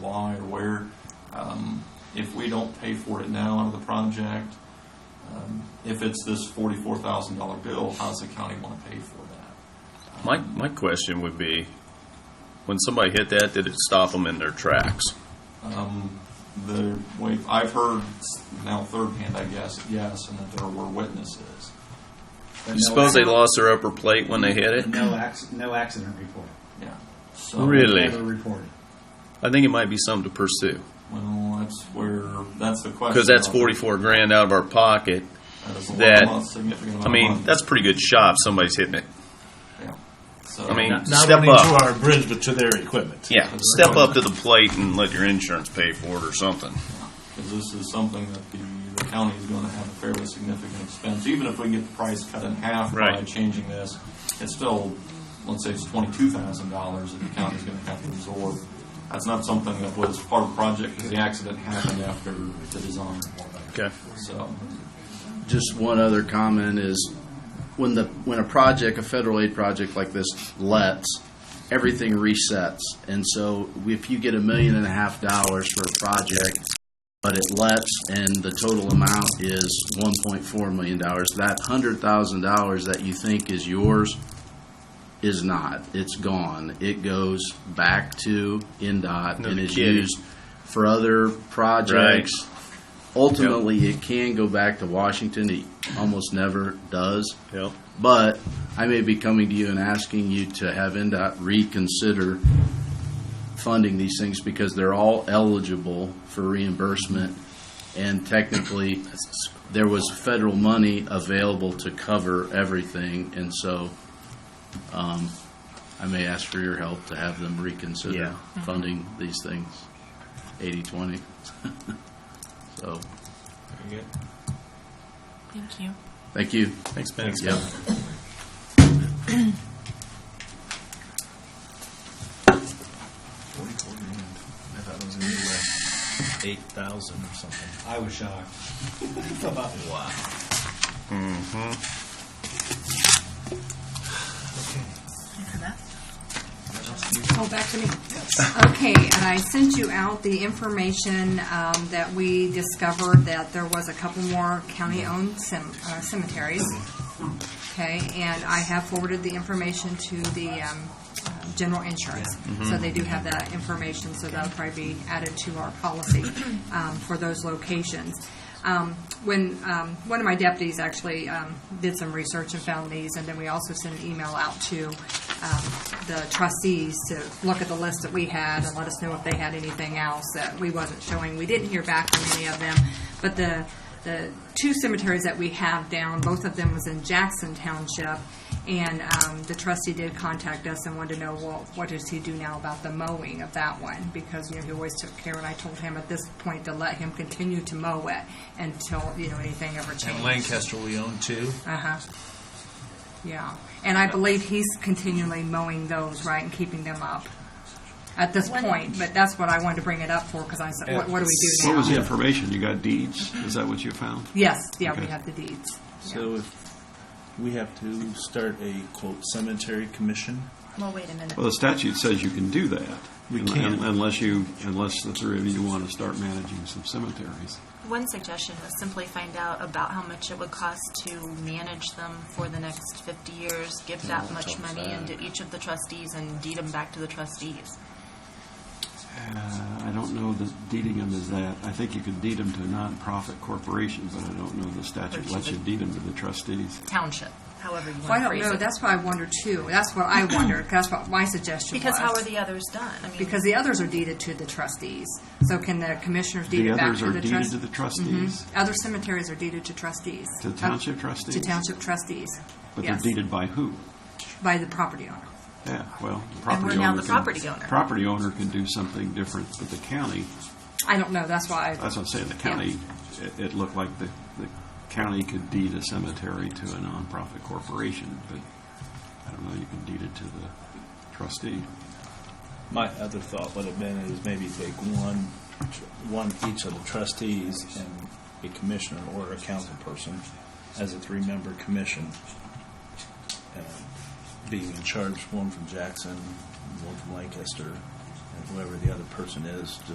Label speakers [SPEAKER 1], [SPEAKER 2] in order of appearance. [SPEAKER 1] supply or where. Um, If we don't pay for it now out of the project, um, if it's this forty-four thousand dollar bill, how's the county want to pay for that?
[SPEAKER 2] My, my question would be, when somebody hit that, did it stop them in their tracks?
[SPEAKER 1] Um, The way, I've heard s- now third hand, I guess, yes, and that there were witnesses.
[SPEAKER 2] You suppose they lost their upper plate when they hit it?
[SPEAKER 3] No accident, no accident report.
[SPEAKER 1] Yeah. So-
[SPEAKER 2] Really?
[SPEAKER 3] Never reported.
[SPEAKER 2] I think it might be something to pursue,
[SPEAKER 1] Well, that's where, that's the question.
[SPEAKER 2] because that's forty-four grand out of our pocket.
[SPEAKER 1] That is a lot-
[SPEAKER 2] that-
[SPEAKER 1] lot significant amount
[SPEAKER 2] I
[SPEAKER 1] of
[SPEAKER 2] mean,
[SPEAKER 1] money.
[SPEAKER 2] that's a pretty good shot if somebody's hitting it.
[SPEAKER 1] Yeah. So,
[SPEAKER 2] I mean,
[SPEAKER 4] Not
[SPEAKER 2] step
[SPEAKER 4] only
[SPEAKER 2] up.
[SPEAKER 4] to our bridge, but to their equipment.
[SPEAKER 2] Yeah, step up to the plate and let your insurance pay for it or something.
[SPEAKER 1] because this is something that the, the county is going to have a fairly significant expense. Even if we get the price cut in half by
[SPEAKER 2] Right.
[SPEAKER 1] changing this, it's still, let's say it's twenty-two thousand dollars that the county's going to have to absorb. That's not something that was part of the project because the accident happened after the design.
[SPEAKER 2] Okay.
[SPEAKER 1] So,
[SPEAKER 5] Just one other comment is when the when a project, a federal aid project like this lets, everything resets. And so if you get a million and a half dollars for a project, but it lets and the total amount is one point four million dollars, that hundred thousand dollars that you think is yours is not. It's gone. It goes back to NDOT
[SPEAKER 2] No
[SPEAKER 5] and is
[SPEAKER 2] kidding.
[SPEAKER 5] used for other projects ultimately it can go back to Washington. It almost never does.
[SPEAKER 2] Yep.
[SPEAKER 5] But I may be coming to you and asking you to have NDOT reconsider funding these things because they're all eligible for reimbursement. And technically, there was federal money available to cover everything. And so um, I may ask for your help to have them reconsider funding these things 80 20. so
[SPEAKER 6] Thank you.
[SPEAKER 5] thank you.
[SPEAKER 2] Thanks, Ben.
[SPEAKER 5] Yep.
[SPEAKER 4] Forty-four grand. I thought it was gonna be like eight thousand or something.
[SPEAKER 3] I was shocked.
[SPEAKER 4] Wow.
[SPEAKER 7] Oh, back to me. Okay, and I sent you out the information um, that we discovered that there was a couple more county-owned cem- uh, cemeteries. Okay, and I have forwarded the information to the um, uh, general insurance. So they do have that information, so that'll probably be added to our policy um, for those locations. Um, When, um, one of my deputies actually um, did some research and found these, and then we also sent an email out to um, the trustees to look at the list that we had and let us know if they had anything else that we wasn't showing. We didn't hear back from any of them, but the, the two cemeteries that we have down, both of them was in Jackson Township, and um, the trustee did contact us and wanted to know, well, what does he do now about the mowing of that one? Because, you know, he always took care, and I told him at this point to let him continue to mow it until, you know, anything ever changed.
[SPEAKER 4] And Lancaster we own too.
[SPEAKER 7] Uh-huh. Yeah, and I believe he's continually mowing those, right, and keeping them up at this point, but that's what I wanted to bring it up for, because I said, what, what do we
[SPEAKER 8] What
[SPEAKER 7] do
[SPEAKER 8] was the
[SPEAKER 7] now?
[SPEAKER 8] information? You got deeds? Is that what you found?
[SPEAKER 7] Yes, yeah, we
[SPEAKER 8] Okay.
[SPEAKER 7] have the deeds.
[SPEAKER 4] So if we have to start a quote cemetery commission.
[SPEAKER 6] Well, wait a minute.
[SPEAKER 8] Well, the statute says you can do that.
[SPEAKER 4] We
[SPEAKER 8] un-
[SPEAKER 4] can.
[SPEAKER 8] Unless you, unless the three of you want to start managing some cemeteries.
[SPEAKER 6] One suggestion was simply find out about how much it would cost to manage them for the next 50 years, give that much money into each of the trustees and deed them back to the trustees.
[SPEAKER 8] Uh, I don't know that deeding them is that. I think you can deed them to a nonprofit corporation, but I don't know the statute lets you deed them to the trustees.
[SPEAKER 6] Township, however you want
[SPEAKER 7] Well, I
[SPEAKER 6] to
[SPEAKER 7] don't
[SPEAKER 6] phrase
[SPEAKER 7] know,
[SPEAKER 6] it.
[SPEAKER 7] that's what I wonder too, that's what I wondered, 'cause that's what my suggestion was.
[SPEAKER 6] because how are the others done? I mean,
[SPEAKER 7] Because the others are deeded to the trustees, so can the commissioners deed
[SPEAKER 8] The
[SPEAKER 7] it back
[SPEAKER 8] others
[SPEAKER 7] to
[SPEAKER 8] are
[SPEAKER 7] the Mm-hmm.
[SPEAKER 8] deeded to
[SPEAKER 7] trustees?
[SPEAKER 8] the trustees,
[SPEAKER 7] Other cemeteries are deeded to trustees.
[SPEAKER 8] To
[SPEAKER 7] Uh,
[SPEAKER 8] township trustees?
[SPEAKER 7] To township trustees,
[SPEAKER 8] but they're
[SPEAKER 7] yes,
[SPEAKER 8] deeded by who?
[SPEAKER 7] by the property owner.
[SPEAKER 8] Yeah, well, the
[SPEAKER 6] And we're
[SPEAKER 8] property owner.
[SPEAKER 6] now the
[SPEAKER 8] can-
[SPEAKER 6] property owner.
[SPEAKER 8] Property owner can do something different, but the county,
[SPEAKER 7] I don't know, that's why I
[SPEAKER 8] that's what I'm saying, the county, it, it looked like the, the county could deed a cemetery to a nonprofit corporation, but I don't know, you can deed it to the trustee.
[SPEAKER 4] My other thought would have been is maybe take one, one each of the trustees and a commissioner or a council person as a three-member commission. uh, Being in charge, one from Jackson, one from Lancaster, and whoever the other person is,